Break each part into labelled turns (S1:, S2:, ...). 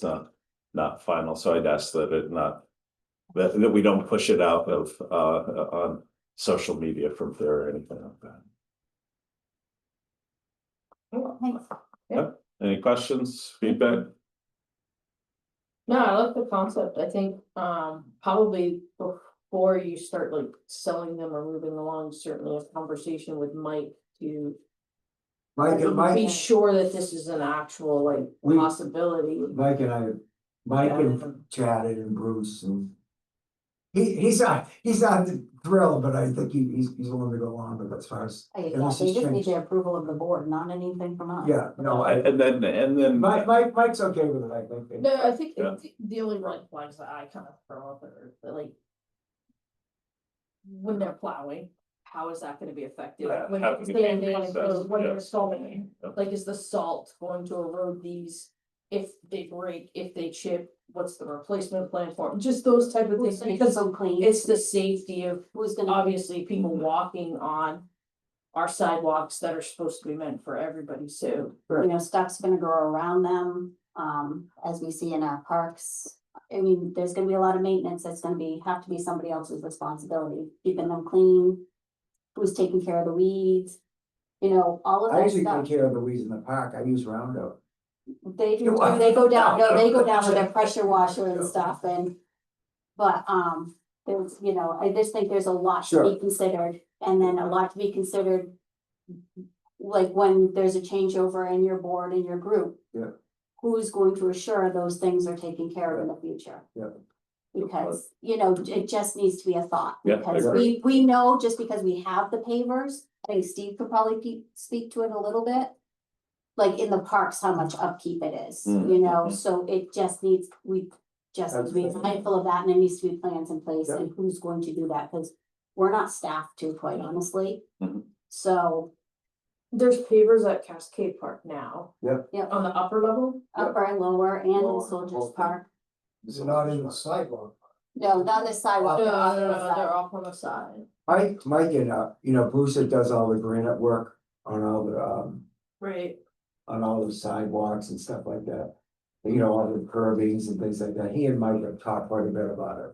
S1: it's not, not final, so I'd ask that it not. That, that we don't push it out of, uh, on social media from there or anything like that.
S2: Oh, thanks.
S1: Any questions, feedback?
S2: No, I like the concept. I think um probably before you start like selling them or moving along, certainly a conversation with Mike to.
S3: Mike, and-
S2: Be
S3: Mike,
S2: sure that this is an actual like
S3: We-
S2: possibility.
S3: Mike and I, Mike and
S2: Um,
S3: chatted and Bruce and. He, he's not, he's not thrilled, but I think he, he's, he's willing to go on, but as far as,
S4: Hey,
S3: And
S4: yeah,
S3: this
S4: so you
S3: has
S4: just need
S3: changed.
S4: the approval of the board, not anything from us.
S3: yeah, no, I,
S1: And and then, and then.
S3: Mike, Mike, Mike's okay with it, I think.
S2: No, I think
S1: Yeah.
S2: the- the only red flags that I kind of throw up are that, like. When they're plowing, how is that gonna be effective?
S1: Yeah,
S2: When
S1: how
S2: they're
S1: can you change
S2: sanding,
S1: process?
S2: when
S1: Yeah.
S2: they're salting.
S1: Yeah.
S2: Like, is the salt going to erode these? If they break, if they chip, what's the replacement plan for 'em? Just those type of things,
S4: Who's gonna keep
S2: because
S4: them clean?
S2: it's the safety of
S4: Who's gonna,
S2: obviously people walking on. Our sidewalks that are supposed to be meant for everybody, so.
S4: you know, stuff's gonna grow around them, um, as we see in our parks. I mean, there's gonna be a lot of maintenance that's gonna be, have to be somebody else's responsibility, keeping them clean. Who's taking care of the weeds? You know, all of
S3: I
S4: that
S3: usually take
S4: stuff.
S3: care of the weeds in the park, I use Roundup.
S4: They do,
S3: You what?
S4: too. they go down, no, they go down with their pressure washer and stuff and. But, um, there's, you know, I just think there's a lot to
S3: Sure.
S4: be considered and then a lot to be considered. Like when there's a changeover in your board and your group.
S3: Yeah.
S4: Who's going to assure those things are taken care of in the future?
S3: Yeah.
S4: Because, you know, it just needs to be a thought.
S1: Yeah, I
S4: Because
S1: agree.
S4: we, we know just because we have the pavers, I think Steve could probably pe- speak to it a little bit. Like in the parks, how much upkeep it is,
S1: Mm.
S4: you know, so it just needs, we just need to be
S3: Mm-hmm. Absolutely.
S4: mindful of that and it needs to be plans in place
S3: Yeah.
S4: and who's going to do that, because we're not staffed to, quite honestly.
S3: Mm-hmm.
S1: Mhm.
S4: So
S2: There's pavers at Cascade Park now.
S3: Yep.
S4: Yep.
S2: On the upper level?
S3: Yeah.
S4: upper and lower and in
S3: Lower,
S4: Soldiers
S3: both.
S4: Park,
S3: It's not in the sidewalk.
S4: no, not the sidewalk.
S2: No,
S4: the other
S2: no, no,
S4: side.
S2: they're off on the side.
S3: Mike, Mike and, uh, you know, Bruce that does all the granite work on all the, um,
S2: Right.
S3: on all the sidewalks and stuff like that. You know, all the curbings and things like that, he and Mike have talked quite a bit about it.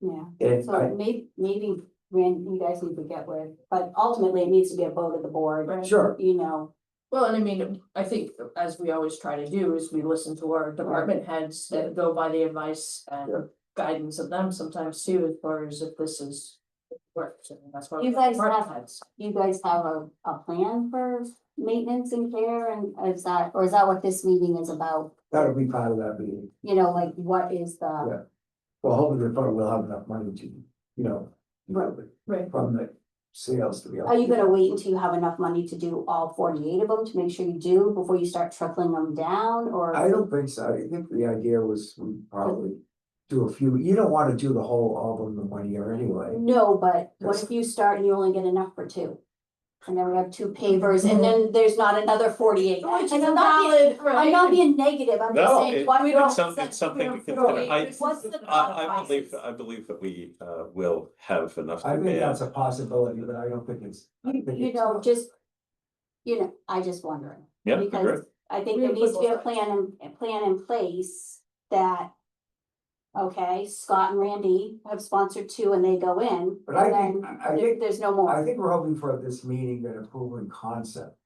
S4: Yeah,
S3: And I,
S4: so may- maybe, Rand, you guys need to get with, but ultimately it needs to be a vote of the board,
S2: Right.
S3: sure,
S4: you know,
S2: Well, and I mean, I think as we always try to do is we listen to our department heads that go by the advice
S3: Yeah.
S2: and guidance of them sometimes too, as far as if this is. Works, and that's why. we
S4: You
S2: have
S4: guys
S2: department
S4: have-
S2: heads.
S4: you guys have a, a plan for maintenance and care and is that, or is that what this meeting is about?
S3: that'll be part of that meeting.
S4: You know, like what is the,
S3: Well, hopefully, the fund will have enough money to, you know,
S4: Right.
S2: Right.
S3: from the sales to be. able
S4: are you gonna wait until you have enough money to do all forty-eight of them to make sure you do before you start trickling them
S3: I
S4: down or?
S3: don't think so, I think the idea was we probably do a few, you don't wanna do the whole album in one year anyway.
S4: No, but what if you start and you only get enough for two? And then we have two pavers and then there's not another forty-eight.
S2: Which is
S4: And I'm not being-
S2: valid, right?
S4: I'm not being negative, I'm just
S1: No,
S4: saying,
S1: it-
S4: why we
S1: it's
S4: don't.
S1: some-
S4: set-
S1: it's something
S4: we
S1: to
S4: don't-
S1: consider. I-
S4: What's the thought
S1: I, I believe,
S4: process?
S1: I believe that we, uh, will have enough.
S3: I think
S1: demand.
S3: that's a possibility, but I don't think it's. I
S4: You,
S3: think
S4: you
S3: it's-
S4: know, just, you know, I just wondering.
S1: Yeah, agree.
S4: Because I think
S2: We
S4: there
S2: need to
S4: needs to be a
S2: look at it.
S4: plan, in- a plan in place that. Okay, Scott and Randy have sponsored two and they go in,
S3: But I
S4: and
S3: think,
S4: then
S3: I
S4: there-
S3: think,
S4: there's no
S3: I
S4: more,
S3: think we're hoping for this meeting that a proven concept,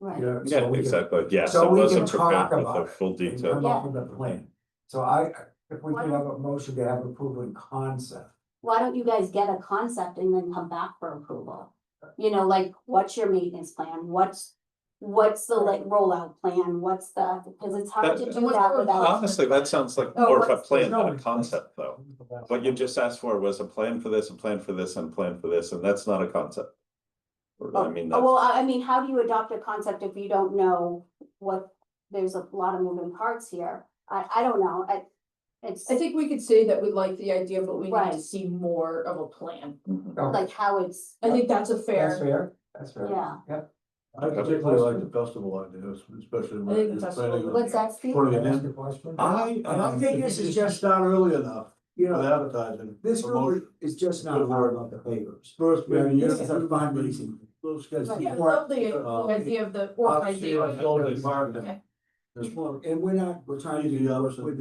S3: you
S4: right?
S3: know. so
S1: Yeah,
S3: we can-
S1: exactly, yes,
S3: so
S1: I
S3: we can
S1: wasn't
S3: talk
S1: prepared with
S3: about
S1: the
S3: it
S1: full
S3: and
S1: detail.
S3: Come up with a plan, so I, if we
S2: Why
S3: can
S2: don't-
S3: have a motion to have a proven concept.
S4: Why don't you guys get a concept and then come back for approval? You know, like, what's your maintenance plan, what's, what's the like rollout plan, what's the, because it's hard to
S1: That-
S4: do that
S3: Oh,
S4: without.
S1: Honestly, that sounds like
S4: Oh,
S1: more of a
S4: what's-
S1: plan than a concept, though. What you just asked for was a plan for this, a plan for this, and a plan for this, and that's not a concept. Or, I mean,
S4: Oh,
S1: that's,
S4: Well, I, I mean, how do you adopt a concept if you don't know what, there's a lot of moving parts here, I, I don't know, I, it's
S2: I think we could say that we like the idea, but we need to
S4: Right.
S2: see more of a plan.
S1: Mhm.
S3: Okay,
S4: like how it's,
S2: I think that's a
S3: That's
S2: fair,
S3: fair, that's fair.
S4: yeah,
S5: I particularly like the festival idea, especially
S2: I think
S5: when
S2: the
S5: you're
S2: festival
S5: planning.
S2: would
S5: on
S4: what's that, Steve?
S5: putting
S3: Can
S5: it
S3: I ask
S5: in.
S3: a question?
S5: I,
S3: I don't think this is just
S5: not early enough
S3: You
S5: with
S3: know,
S5: advertising.
S3: this really
S5: promotion.
S3: is just not hard about the papers.
S5: First, maybe you.
S3: This is a fundraising.
S5: Those guys.
S2: yeah,
S3: Or-
S2: love the
S5: uh,
S2: idea of the
S5: Obviously,
S2: idea.
S5: it's all the marketing. There's
S3: Well, and we're not, we're trying to
S5: Easy
S3: do
S5: hours
S3: with